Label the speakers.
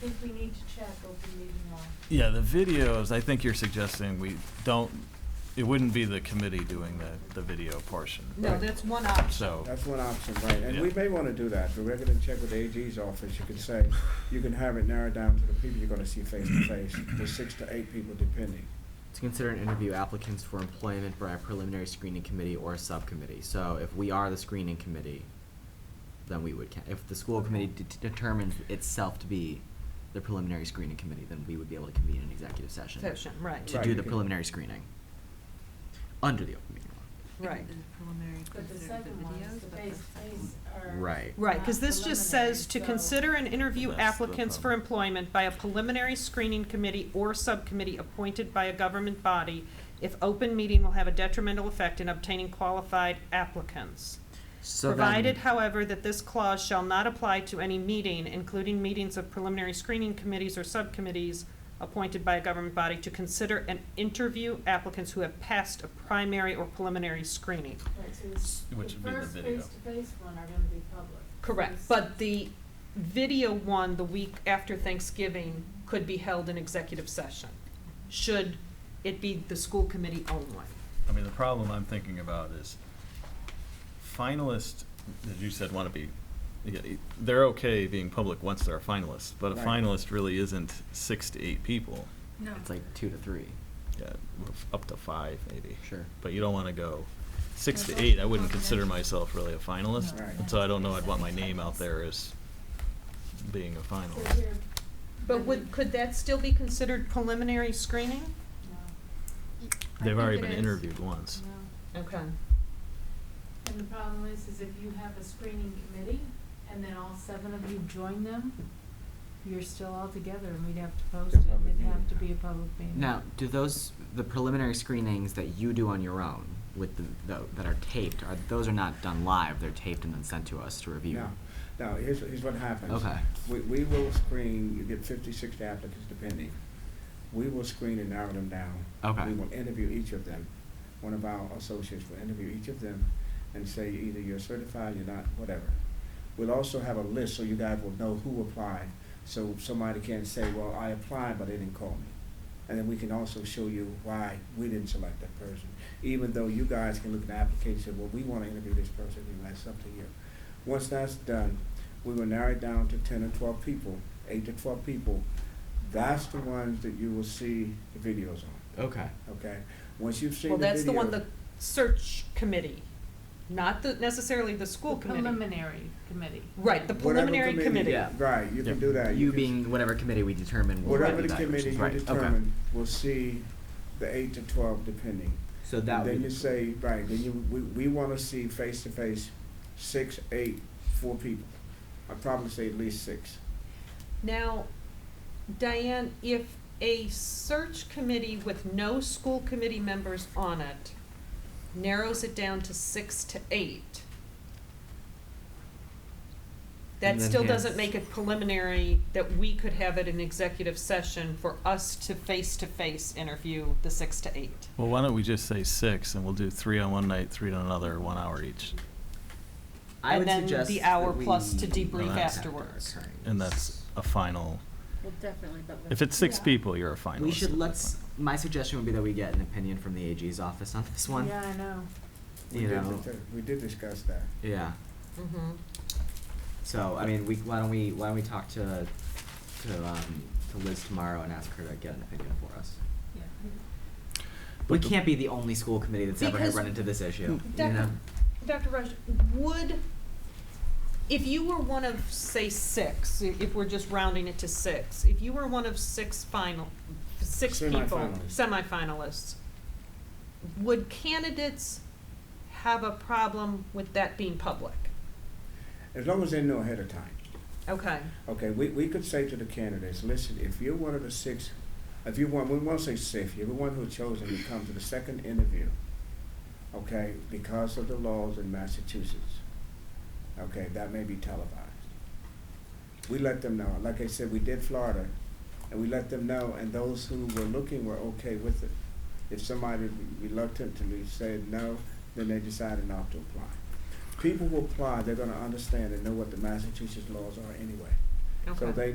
Speaker 1: think we need to check open meeting law.
Speaker 2: Yeah, the videos, I think you're suggesting we don't, it wouldn't be the committee doing the, the video portion.
Speaker 3: No,
Speaker 2: right?
Speaker 3: that's one option.
Speaker 2: So,
Speaker 4: That's one option, right, and we
Speaker 2: Yeah.
Speaker 4: may wanna do that, but we're gonna check with the AG's office, you can say, you can have it narrowed down to the people you're gonna see face to face, the six to eight people depending.
Speaker 5: To consider and interview applicants for employment by a preliminary screening committee or a subcommittee. So if we are the screening committee, then we would, ca- if the school committee det- determines itself to be the preliminary screening committee, then we would be able to convene an executive session.
Speaker 3: Session, right,
Speaker 5: To
Speaker 4: Right,
Speaker 5: do
Speaker 4: you
Speaker 5: the
Speaker 4: can-
Speaker 5: preliminary screening. Under the open meeting law.
Speaker 3: right.
Speaker 1: But the second one, is the face-to-face are.
Speaker 5: Right.
Speaker 3: Right,
Speaker 1: not
Speaker 3: because this just
Speaker 1: preliminary,
Speaker 3: says to
Speaker 1: so-
Speaker 3: consider and interview
Speaker 2: That's the
Speaker 3: applicants for
Speaker 2: problem.
Speaker 3: employment by a preliminary screening committee or subcommittee appointed by a government body if open meeting will have a detrimental effect in obtaining qualified applicants.
Speaker 5: So then-
Speaker 3: Provided, however, that this clause shall not apply to any meeting, including meetings of preliminary screening committees or subcommittees appointed by a government body to consider and interview applicants who have passed a primary or preliminary screening.
Speaker 1: Right, so it's-
Speaker 2: Which would be the video.
Speaker 1: first face-to-face one are gonna be public.
Speaker 3: Correct,
Speaker 1: This-
Speaker 3: but the video one the week after Thanksgiving could be held in executive session, should it be the school committee only.
Speaker 2: I mean, the problem I'm thinking about is finalists, as you said, want to be, they're okay being public once they're a finalist, but a
Speaker 4: Right.
Speaker 2: finalist really isn't six to eight people.
Speaker 6: No.
Speaker 5: It's like two to three.
Speaker 2: Yeah, well, f- up to five maybe.
Speaker 5: Sure.
Speaker 2: But you don't want to go six to
Speaker 6: That's
Speaker 2: eight. I
Speaker 6: also
Speaker 2: wouldn't consider
Speaker 6: confidential.
Speaker 2: myself really a finalist,
Speaker 4: No. Right.
Speaker 2: and so I don't know. I'd want my name out there as being a
Speaker 1: So
Speaker 2: finalist.
Speaker 1: here,
Speaker 3: But would, could that still be considered preliminary screening?
Speaker 1: no,
Speaker 2: They've already been interviewed once.
Speaker 1: no.
Speaker 3: Okay.
Speaker 1: And the problem is, is if you have a screening committee and then all seven of you join them, you're still all together and we'd have to post it.
Speaker 4: It's a public
Speaker 1: It'd have
Speaker 4: meeting.
Speaker 1: to be a public meeting.
Speaker 5: Now, do those, the preliminary screenings that you do on your own with the, tho- that are taped, are, those are not done live, they're taped and then sent to us to review?
Speaker 4: Now, now, here's, here's what happens.
Speaker 5: Okay.
Speaker 4: We, we will screen, you get 50, 60 applicants depending. We will screen and narrow them down.
Speaker 5: Okay.
Speaker 4: We will interview each of them. One of our associates will interview each of them and say either you're certified, you're not, whatever. We'll also have a list so you guys will know who applied, so somebody can't say, well, I applied, but they didn't call me. And then we can also show you why we didn't select that person, even though you guys can look at the application, well, we wanna interview this person, and that's up to you. Once that's done, we will narrow it down to ten or twelve people, eight to twelve people. That's the ones that you will see the videos on,
Speaker 5: Okay.
Speaker 4: okay? Once you've seen
Speaker 3: Well,
Speaker 4: the
Speaker 3: that's the one,
Speaker 4: video-
Speaker 3: the search committee, not the, necessarily the school
Speaker 1: The
Speaker 3: committee.
Speaker 1: Preliminary committee.
Speaker 3: Right, the
Speaker 4: Whatever
Speaker 3: preliminary committee.
Speaker 5: Yeah.
Speaker 4: Right, you can
Speaker 2: Yeah.
Speaker 4: do that.
Speaker 5: You
Speaker 4: can-
Speaker 5: being whatever committee we determine will
Speaker 4: Whatever
Speaker 5: be
Speaker 4: the
Speaker 5: that
Speaker 4: committee
Speaker 5: person's-
Speaker 4: you
Speaker 5: right, okay.
Speaker 4: determine, will see the eight to twelve depending.
Speaker 5: So that
Speaker 4: Then you
Speaker 5: would,
Speaker 4: say, right, then you, we, we wanna see face to face, six, eight, four people. I'd probably say at least six.
Speaker 3: Now, Diane, if a search committee with no school committee members on it narrows it down to six to eight, that
Speaker 5: And then
Speaker 3: still doesn't
Speaker 5: hence-
Speaker 3: make it preliminary that we could have it in executive session for us to face-to-face interview the six to eight.
Speaker 2: Well, why don't we just say six, and we'll do three on one night, three on another, one hour each,
Speaker 5: I
Speaker 3: and
Speaker 5: would
Speaker 3: then
Speaker 5: suggest
Speaker 3: the hour
Speaker 5: that
Speaker 3: plus to
Speaker 5: we
Speaker 3: debrief
Speaker 5: not have to
Speaker 3: afterwards.
Speaker 5: occurring.
Speaker 2: and that's a final.
Speaker 6: Well, definitely, but.
Speaker 2: If it's six
Speaker 1: Yeah.
Speaker 2: people, you're a finalist.
Speaker 5: We should,
Speaker 2: at that
Speaker 5: let's,
Speaker 2: point.
Speaker 5: my suggestion would be that we get an opinion from the AG's office on this one.
Speaker 1: Yeah, I know.
Speaker 4: We
Speaker 5: You
Speaker 4: did
Speaker 5: know.
Speaker 4: dis- We did discuss that.
Speaker 5: Yeah.
Speaker 3: Mm-hmm.
Speaker 5: So, I mean, we, why don't we, why don't we talk to, to, um, to Liz tomorrow and ask her to get an opinion for us?
Speaker 1: Yeah.
Speaker 5: We
Speaker 2: But the-
Speaker 5: can't be the only school committee that's ever had
Speaker 3: Because-
Speaker 5: run into this issue, you
Speaker 3: Defi-
Speaker 5: know?
Speaker 3: Dr. Rush, would, if you were one of, say, six, i- if we're just rounding it to six, if you were one of six final, six people,
Speaker 4: Semifinalists.
Speaker 3: semifinalists, would candidates have a problem with that being public?
Speaker 4: As long as they know ahead of time.
Speaker 3: Okay,
Speaker 4: Okay, we, we could say to the candidates, listen, if you're one of the six, if you want, we want to say six, if you're one who chosen to come to the second interview, okay, because of the laws in Massachusetts, okay, that may be televised. We let them know, like I said, we did Florida, and we let them know, and those who were looking were okay with it. If somebody reluctantly said no, then they decided not to apply. People who apply, they're gonna understand and know what the Massachusetts laws are anyway.
Speaker 3: okay.
Speaker 4: So they